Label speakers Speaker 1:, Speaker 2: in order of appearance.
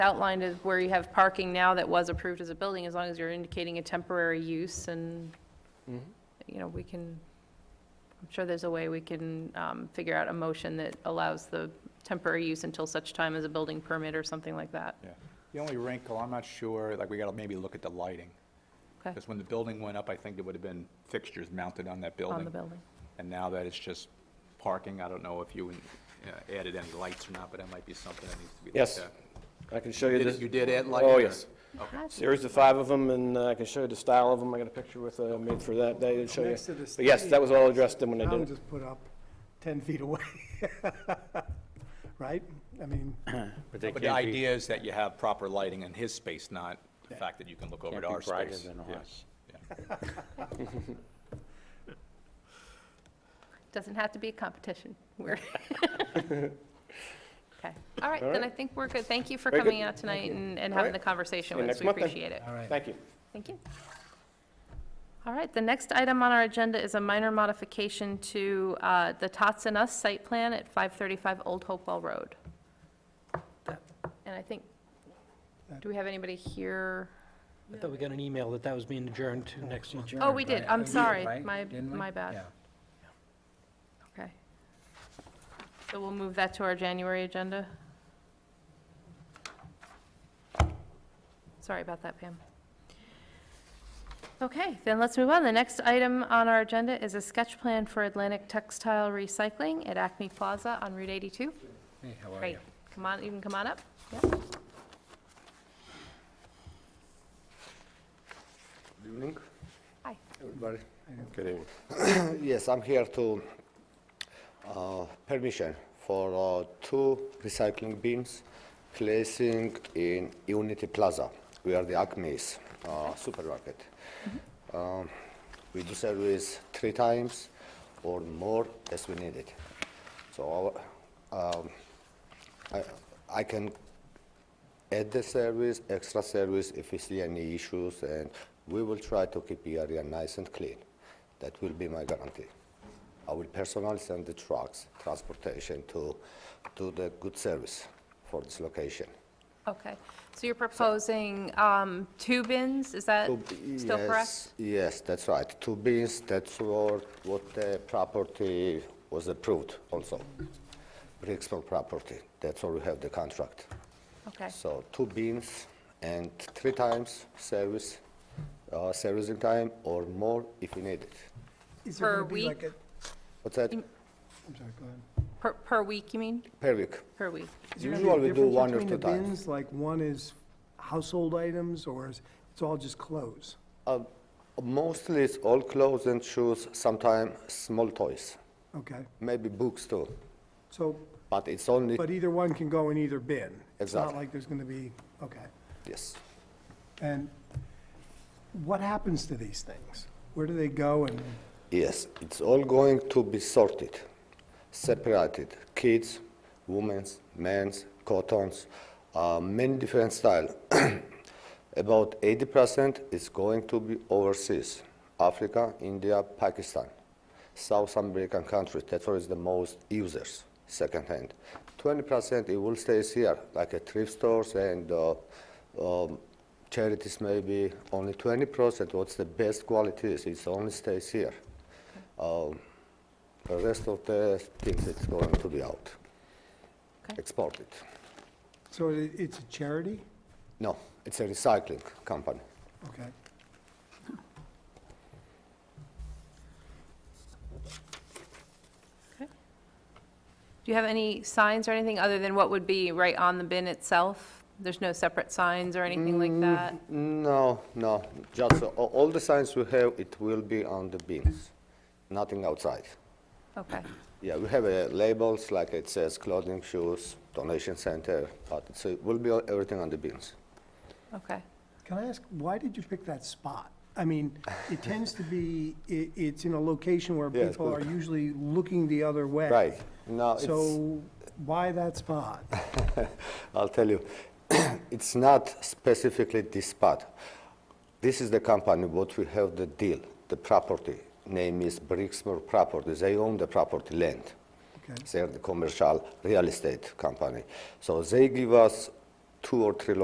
Speaker 1: outlined is where you have parking now that was approved as a building, as long as you're indicating a temporary use and, you know, we can, I'm sure there's a way we can um, figure out a motion that allows the temporary use until such time as a building permit or something like that.
Speaker 2: Yeah. The only wrinkle, I'm not sure, like, we gotta maybe look at the lighting.
Speaker 1: Okay,
Speaker 2: Because when the building went up, I think there would have been fixtures mounted on that building.
Speaker 1: on the building.
Speaker 2: And now that it's just parking, I don't know if you uh, added any lights or not, but that might be something that needs to be looked
Speaker 3: Yes.
Speaker 2: at.
Speaker 3: I can show you
Speaker 2: Did
Speaker 3: this.
Speaker 2: it- You did add lighting?
Speaker 3: Oh,
Speaker 2: or-
Speaker 3: yes.
Speaker 2: Okay.
Speaker 3: Series of five of them, and uh, I can show you the style of them. I got a picture with, uh, made for that day to show you.
Speaker 4: Next to the
Speaker 3: But yes, that
Speaker 4: stage,
Speaker 3: was all addressed in when I
Speaker 4: Town
Speaker 3: did it.
Speaker 4: just put up 10 feet away, right? I mean,
Speaker 5: But they
Speaker 2: But the
Speaker 5: can't be,
Speaker 2: idea is that you have proper lighting in his space, not the fact that you can look over
Speaker 5: can't
Speaker 2: to our
Speaker 5: be brighter
Speaker 2: space.
Speaker 5: than
Speaker 2: Yeah.
Speaker 5: ours.
Speaker 1: Doesn't have to be a competition. We're Okay, all right, then I think we're good. Thank you for
Speaker 3: Very good.
Speaker 1: coming out tonight and and having
Speaker 3: right.
Speaker 1: the conversation
Speaker 3: See you
Speaker 1: with us.
Speaker 3: next
Speaker 1: We
Speaker 3: month then.
Speaker 1: appreciate it.
Speaker 4: all right.
Speaker 3: Thank you.
Speaker 1: Thank you. All right, the next item on our agenda is a minor modification to uh, the Tots and Us site plan at 535 Old Hopewell Road. And I think, do we have anybody here?
Speaker 6: I thought we got an email that that was being adjourned to next month.
Speaker 1: Oh, we did, I'm sorry,
Speaker 7: right?
Speaker 1: my,
Speaker 7: Didn't we?
Speaker 1: my bad,
Speaker 7: Yeah.
Speaker 1: okay. So we'll move that to our January agenda. Sorry about that, Pam. Okay, then let's move on. The next item on our agenda is a sketch plan for Atlantic Textile Recycling at Acme Plaza on Route 82.
Speaker 7: Hey, how are
Speaker 1: Great,
Speaker 7: you?
Speaker 1: come on, you can come on up. Yep.
Speaker 8: Good evening,
Speaker 1: Hi.
Speaker 8: everybody.
Speaker 3: Good evening.
Speaker 8: Yes, I'm here to, uh, permission for uh, two recycling bins placing in Unity Plaza, where the Acme is, uh, supermarket.
Speaker 3: Mm-hmm.
Speaker 8: Um, We do service three times or more as we need it. So our- um, I I can add the service, extra service if we see any issues, and we will try to keep the area nice and clean. That will be my guarantee. I will personally send the trucks, transportation to do the good service for this location.
Speaker 1: Okay, so you're proposing um, two bins, is that still correct?
Speaker 8: Yes, Yes, that's right. Two bins, that's what, what the property was approved also. Bricksville property, that's where we have the contract.
Speaker 1: Okay,
Speaker 8: So two beans and three times service, uh, servicing time or more if you need it.
Speaker 4: Is there
Speaker 1: Per
Speaker 4: gonna be like
Speaker 1: week?
Speaker 4: a-
Speaker 8: What's that?
Speaker 1: In-
Speaker 4: I'm sorry, go ahead.
Speaker 1: per, per week, you mean?
Speaker 8: Per week.
Speaker 1: Per week.
Speaker 4: Is there gonna be a
Speaker 8: Usually we do
Speaker 4: difference
Speaker 8: one or
Speaker 4: between the
Speaker 8: two times.
Speaker 4: bins? Like, one is household items, or is, it's all just clothes?
Speaker 8: Uh, mostly it's all clothes and shoes, sometimes small toys,
Speaker 4: Okay,
Speaker 8: maybe books too.
Speaker 4: so,
Speaker 8: But it's only,
Speaker 4: but either one can go in either bin? It's not
Speaker 8: Exactly.
Speaker 4: like there's gonna be, okay.
Speaker 8: yes.
Speaker 4: And what happens to these things? Where do they go and,
Speaker 8: Yes, it's all going to be sorted, separated. Kids, women's, men's, cottons, uh, many different style. About 80% is going to be overseas, Africa, India, Pakistan, South American countries. That's where is the most users, secondhand. 20% it will stay here, like at thrift stores and uh, um, charities maybe. Only 20%, what's the best quality is, it only stays here. Um, the rest of the things it's going to be out,
Speaker 1: Okay.
Speaker 8: exported.
Speaker 4: so it- it's a charity?
Speaker 8: No, it's a recycling company.
Speaker 4: Okay.
Speaker 1: Do you have any signs or anything other than what would be right on the bin itself? There's no separate signs or anything like
Speaker 8: Mm.
Speaker 1: that?
Speaker 8: No, no, just a- all the signs we have, it will be on the bins, nothing outside.
Speaker 1: Okay,
Speaker 8: Yeah, we have uh, labels, like it says clothing, shoes, donation center, but it's- it will be all- everything on the bins.
Speaker 1: okay.
Speaker 4: Can I ask, why did you pick that spot? I mean, it tends to be, i it's in a location where
Speaker 8: Yeah, it's
Speaker 4: people are
Speaker 8: good.
Speaker 4: usually looking the other way.
Speaker 8: Right, now it's...
Speaker 4: So why that spot?
Speaker 8: I'll tell you, it's not specifically this spot. This is the company what we have the deal, the property. Name is Brixmore Properties. They own the property land.
Speaker 4: Okay.
Speaker 8: They're the commercial real estate company. So they give us two or three